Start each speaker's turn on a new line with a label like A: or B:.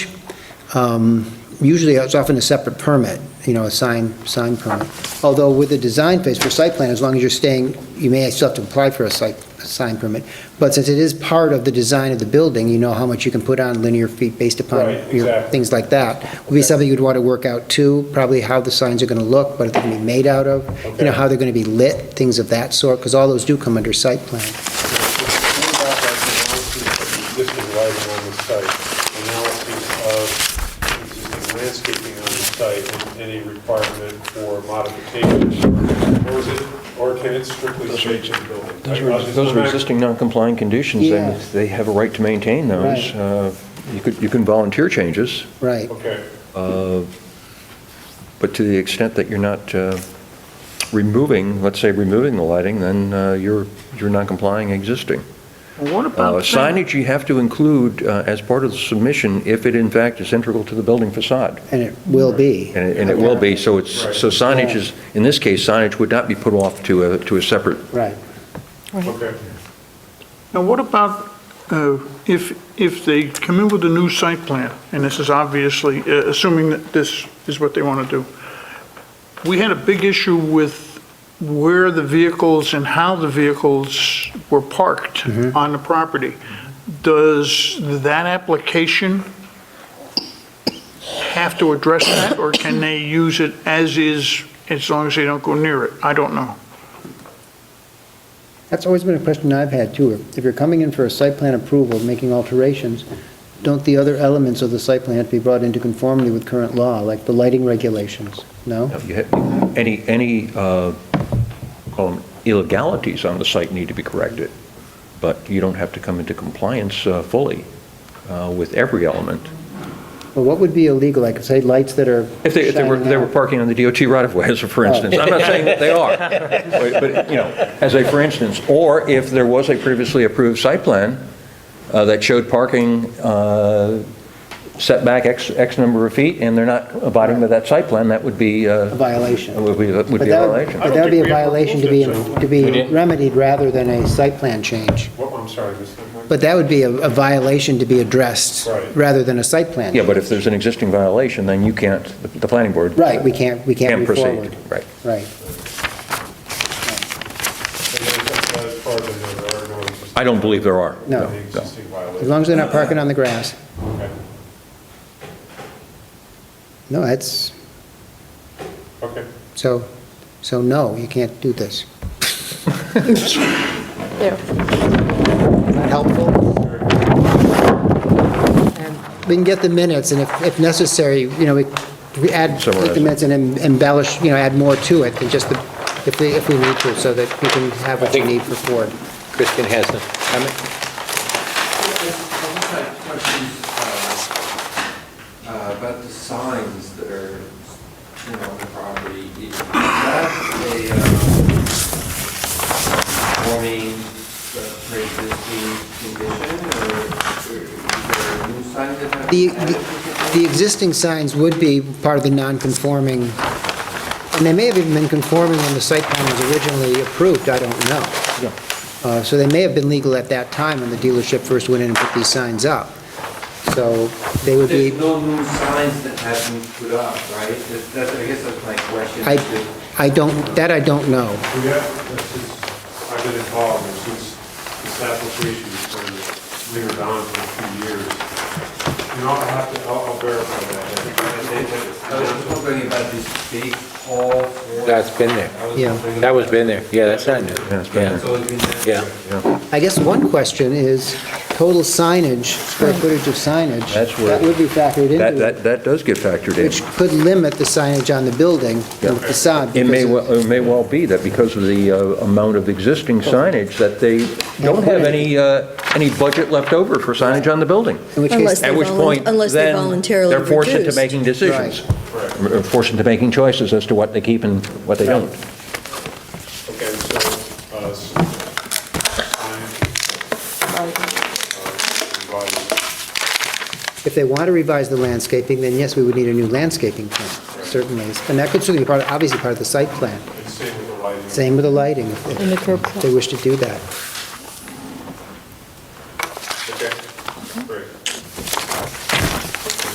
A: Um, Usually, it's often a separate permit, you know, a sign, sign permit. Although with the design phase for site plan, as long as you're staying, you may still have to apply for a site, a sign permit. But since it is part of the design of the building, you know how much you can put on linear feet based upon
B: Right,
A: your,
B: exactly.
A: things like that. Would be
B: Okay.
A: something you'd want to work out too, probably how the signs are going to look, what they're going to be made out of, you
B: Okay.
A: know, how they're going to be lit, things of that sort, because all those do come under site plan.
B: Going back like the analysis of the existing lighting on the site, analysis of existing landscaping on the site, and any requirement for modifications, or is it, or can it strictly stay to the building?
C: Those are, those are existing non-compliant conditions,
A: Yeah.
C: and they have a right to maintain those.
A: Right.
C: Uh, You could, you can volunteer changes,
A: Right,
B: Okay,
C: uh, but to the extent that you're not uh, removing, let's say removing the lighting, then uh, you're, you're not complying existing.
D: Well, What
C: Uh,
D: about that?
C: Signage you have to include uh, as part of the submission if it in fact is integral to the building facade.
A: and it will be.
C: And it- and it will be, so it's, so signage is, in this case, signage would not be put off to a, to a separate
A: Right.
B: okay.
D: Now, what about uh, if, if they come in with a new site plan, and this is obviously, uh, assuming that this is what they want to do, we had a big issue with where the vehicles and how the vehicles were parked on the property. Does that application have to address that, or can they use it as is, as long as they don't go near it? I don't know.
A: That's always been a question I've had too. If you're coming in for a site plan approval, making alterations, don't the other elements of the site plan have to be brought into conformity with current law, like the lighting regulations? No?
C: Now, you ha- Any, any, uh, call them illegalities on the site need to be corrected, but you don't have to come into compliance uh, fully uh, with every element.
A: Well, what would be illegal? Like, say, lights that are
C: If they, if they were,
A: shining
C: they were
A: out.
C: parking on the DOT right-of-way, as a for instance, I'm not saying that they are, but, but, you know, as a for instance, or if there was a previously approved site plan uh, that showed parking uh, setback X, X number of feet, and they're not abiding by that site plan, that would be, uh,
A: A violation.
C: Would be, would
A: But
C: be a
A: that would-
C: violation.
A: But that would be a
B: I don't think we ever
A: violation to be,
B: approved it, so-
A: to be remedied rather than a site plan change.
B: What, I'm sorry, Mr. Mike?
A: But that would be a a violation to be addressed
B: Right.
A: rather than a site plan.
C: Yeah, but if there's an existing violation, then you can't, the- the planning board.
A: Right, we can't, we can't
C: Can't
A: move
C: proceed,
A: forward.
C: right.
A: Right.
B: And then that is part of the- there are no existing-
C: I don't believe there are.
A: No.
B: Any existing
A: As
B: violations.
A: long as they're not parking on the grass.
B: Okay.
A: No, that's,
B: Okay.
A: so, so no, you can't do this.
E: There.
A: Not helpful. We can get the minutes, and if, if necessary, you know, we, we add, take
C: Summarize
A: the
C: it.
A: minutes and em- embellish, you know, add more to it than just the, if we, if we need to, so that you can have what you need for Ford.
F: Kristen has a comment?
G: I had questions uh, uh, about the signs that are, you know, on the property. Is that a uh, warning, uh, pre-existing condition, or or is there a new sign that has?
A: The, the- the existing signs would be part of the non-conforming, and they may have even been conforming when the site plan was originally approved, I don't know. Uh, So they may have been legal at that time when the dealership first went in and put these signs up. So they would be,
G: There's no new signs that have been put up, right? That- that- I guess that's my question.
A: I, I don't, that I don't know.
B: We have, this is, I've been involved and since this application has been lingered on for a few years. You know, I'll have to, I'll I'll verify that.
G: I was wondering about this big hall. for-
F: That's been there.
G: I was
A: Yeah.
G: wondering
F: That was
G: about-
F: been there. Yeah, that's not new.
C: Yeah, it's been
G: It's always been there.
F: Yeah.
A: I guess one question is total signage, square footage of signage.
C: That's where-
A: That would be factored into
C: That,
A: it,
C: that, that does get factored in.
A: which could limit the signage on the building and the facade.
C: It may,
A: because of-
C: well- it may well be that because of the uh, amount of existing signage, that they don't have any, uh, any budget left over for signage on the building.
A: In which
E: Unless
A: case,
E: they
C: At which
E: volun-
C: point,
E: unless they
C: then,
E: voluntarily
C: they're forced into
E: reduced.
C: making decisions.
B: Correct.
C: Or Forced into making choices as to what they keep and what they don't.
B: Okay, so, uh, s- sign, uh, invited.
A: if they want to revise the landscaping, then yes, we would need a new landscaping plan, certainly. And that could certainly be part, obviously part of the site plan.
B: and same with the lighting.
A: Same with the lighting, if-
E: And the curb
A: if they wish to do that.